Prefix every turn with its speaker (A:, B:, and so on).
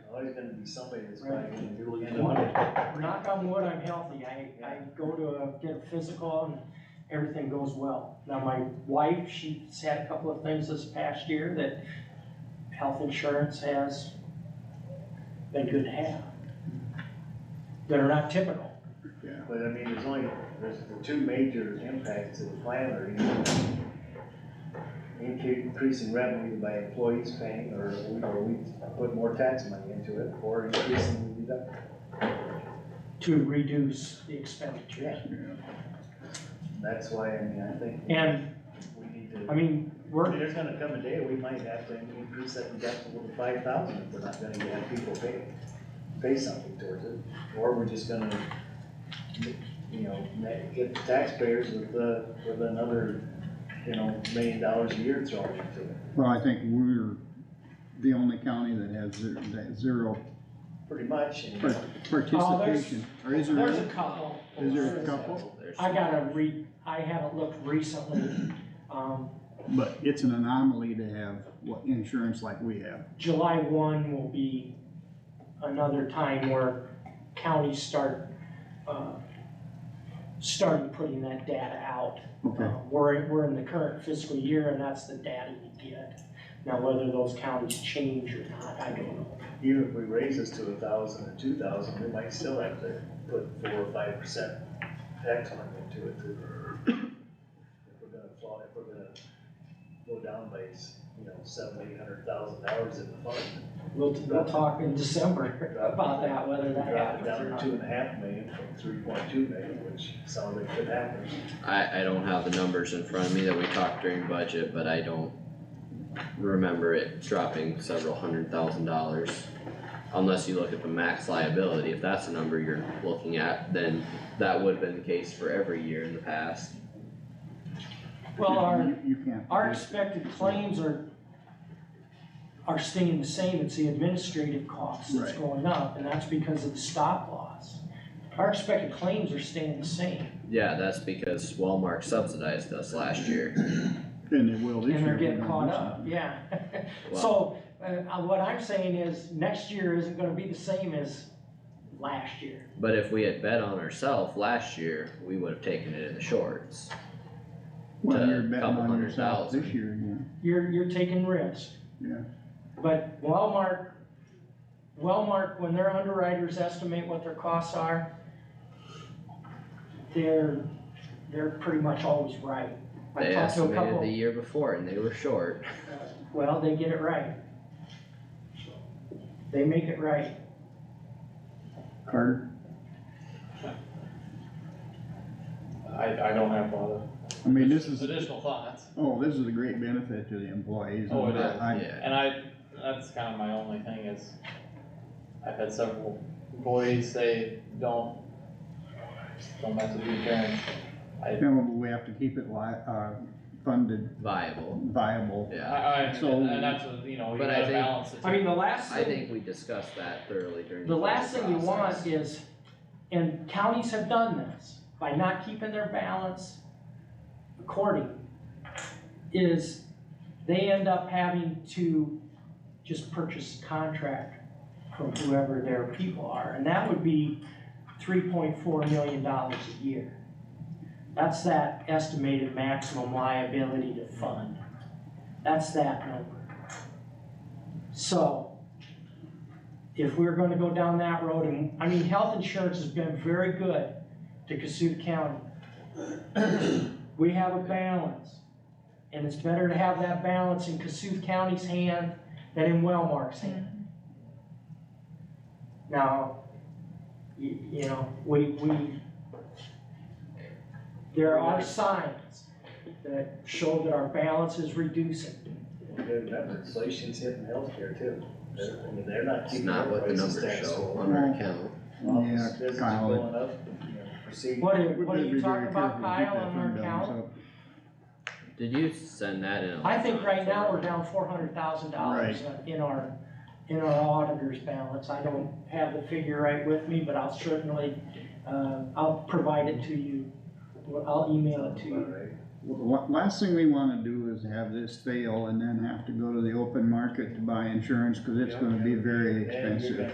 A: always gonna be somebody that's
B: Right.
A: probably gonna do
B: And
A: it.
B: when- Knock on wood, I'm healthy, I, I go to uh, get a physical and everything goes well. Now, my wife, she's had a couple of things this past year that health insurance has been good to have. That are not typical.
A: But I mean, there's only, there's the two major impacts to the plan are either increasing revenue by employees paying, or we, or we put more tax money into it, or increasing the deduct.
B: to reduce the expenditure.
A: That's why, I mean, I think
B: And,
A: we need to.
B: I mean, we're,
A: There's gonna come a day we might have to increase that deductible to five thousand if we're not gonna have people pay, pay something towards it. Or we're just gonna, you know, ma- get the taxpayers with, uh, with another, you know, million dollars a year thrown into it,
C: Well, I think we're the only county that has zero, that zero
A: pretty much. and-
C: Right. participation, or is
B: there's a
C: there?
B: couple,
C: Is there a couple?
B: I gotta re, I haven't looked recently. Um,
C: But it's an anomaly to have what insurance like we have.
B: July one will be another time where counties start, uh, starting putting that data out.
C: Okay,
B: Um, We're, we're in the current fiscal year and that's the data you get. Now, whether those counties change or not, I don't know.
A: Even if we raise this to a thousand or two thousand, we might still have to put four or five percent tax on it into it. to- If we're gonna fall, if we're gonna go down by, you know, seven, eight hundred thousand dollars in the fund.
B: We'll, we'll talk in December about that, whether
A: Drop
B: that
A: it
B: happens
A: down
B: or
A: to
B: not.
A: two and a half million from three point two million, which sounds like could happen.
D: I, I don't have the numbers in front of me that we talked during budget, but I don't remember it dropping several hundred thousand dollars. Unless you look at the max liability, if that's the number you're looking at, then that would have been the case for every year in the past.
B: Well, our,
C: You- you can't.
B: our expected claims are, are staying the same, it's the administrative cost that's
C: Right.
B: going up, and that's because of the stop loss. Our expected claims are staying the same,
D: Yeah, that's because Walmart subsidized us last year.
C: And it will this year.
B: and they're
C: we're
B: getting
C: gonna
B: caught
C: do
B: up,
C: something.
B: yeah.
D: Well,
B: So, uh, uh, what I'm saying is, next year isn't gonna be the same as last year.
D: But if we had bet on ourselves last year, we would have taken it in the shorts.
C: Well,
D: to
C: you're betting
D: couple
C: on
D: hundred
C: yourself
D: thousand.
C: this year again.
B: You're, you're taking risk.
C: Yeah.
B: But Walmart, Walmart, when their underwriters estimate what their costs are, they're, they're pretty much always right. I
D: They
B: talked to a
D: estimated the
B: couple,
D: year before and they were short.
B: well, they get it right. They make it right.
C: Carter,
E: I, I don't have one.
C: I mean, this is,
E: Additional thoughts,
C: oh, this is a great benefit to the employees.
E: Oh, it is.
C: I-
D: Yeah.
E: and I, that's kind of my only thing is, I've had several employees say, don't, don't mess with your insurance.
C: You know, we have to keep it li- uh, funded
D: Viable,
C: viable.
E: I,
D: yeah.
E: I,
C: So-
E: and that's, what, you know, you
D: But I
E: gotta
D: think-
E: balance it.
B: I mean, the last
D: I
B: thing-
D: think we discussed that thoroughly during.
B: The last thing you
D: budget
B: want
D: process.
B: is, and counties have done this, by not keeping their balance according, is they end up having to just purchase a contract from whoever their people are, and that would be three point four million dollars a year. That's that estimated maximum liability to fund. That's that number. So if we're gonna go down that road, and, I mean, health insurance has been very good to Cassuth County. We have a balance, and it's better to have that balance in Cassuth County's hand than in Wellmark's hand. Now, you, you know, we, we, there are signs that show that our balance is reducing.
A: You gotta remember, inflation's hitting healthcare too. They're, I mean, they're not
D: It's
A: keeping
D: not
A: their
D: what the
A: prices
D: numbers
A: status
D: show
A: quo.
D: on our account.
A: Office
C: Yeah,
A: visits
C: Kyle, it-
A: going up, you know, procedure.
B: What are,
C: We've
B: what are
C: gotta
B: you
C: be very
B: talking about,
C: careful to keep
B: Kyle,
C: that
B: on our
C: fund balance
B: account?
C: up.
D: Did you send that in?
B: I think right now we're
D: electronically?
B: down four hundred thousand dollars in our, in our auditor's balance. I don't have the figure right with me, but I'll certainly, uh, I'll provide it to you. Well, I'll email it to you.
A: Right.
C: Wha- Last thing we wanna do is have this fail and then have to go to the open market to buy insurance, cause it's gonna be very
A: And you're
C: expensive.
A: gonna